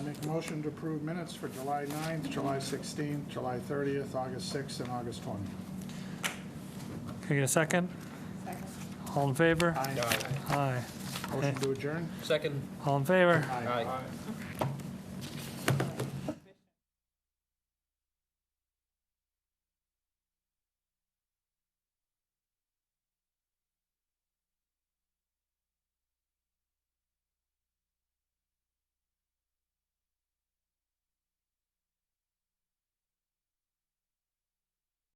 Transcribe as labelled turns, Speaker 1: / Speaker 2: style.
Speaker 1: Motion to approve minutes for July 9th, July 16th, July 30th, August 6th, and August 20th.
Speaker 2: Can I get a second? All in favor?
Speaker 1: Aye.
Speaker 2: Aye.
Speaker 1: Motion to adjourn?
Speaker 3: Second.
Speaker 2: All in favor?
Speaker 1: Aye.
Speaker 3: Aye.